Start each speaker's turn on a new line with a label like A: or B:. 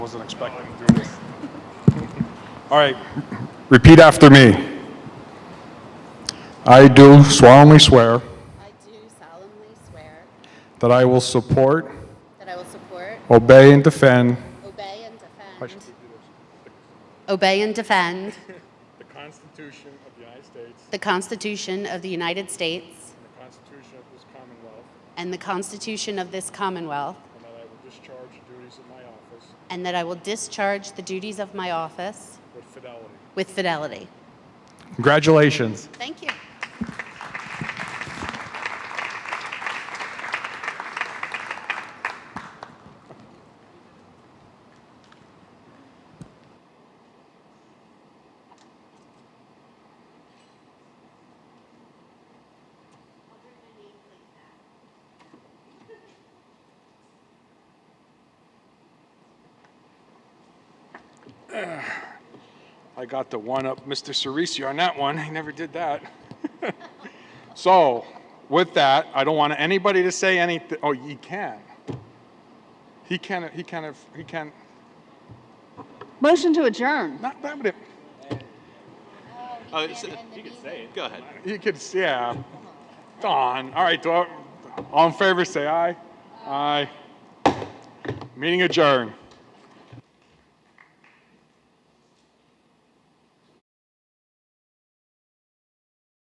A: Wasn't expecting to do this. All right, repeat after me. I do solemnly swear
B: I do solemnly swear
A: that I will support,
B: that I will support,
A: obey, and defend
B: obey, and defend. Obey and defend
A: the Constitution of the United States
B: the Constitution of the United States
A: and the Constitution of this Commonwealth,
B: and the Constitution of this Commonwealth,
A: and that I will discharge the duties of my office
B: and that I will discharge the duties of my office
A: with fidelity.
B: with fidelity.
A: Congratulations.
B: Thank you.
A: I got the one up Mr. Cerisi on that one. He never did that. so, with that, I don't want anybody to say anything. Oh, he can. He can. He can. He can.
C: Motion to adjourn.
A: Not that. But
D: Oh, it's- you can say it. Go ahead.
A: he could. Yeah. Don. All right. do I- All in favor, say aye. Aye. Meeting adjourned.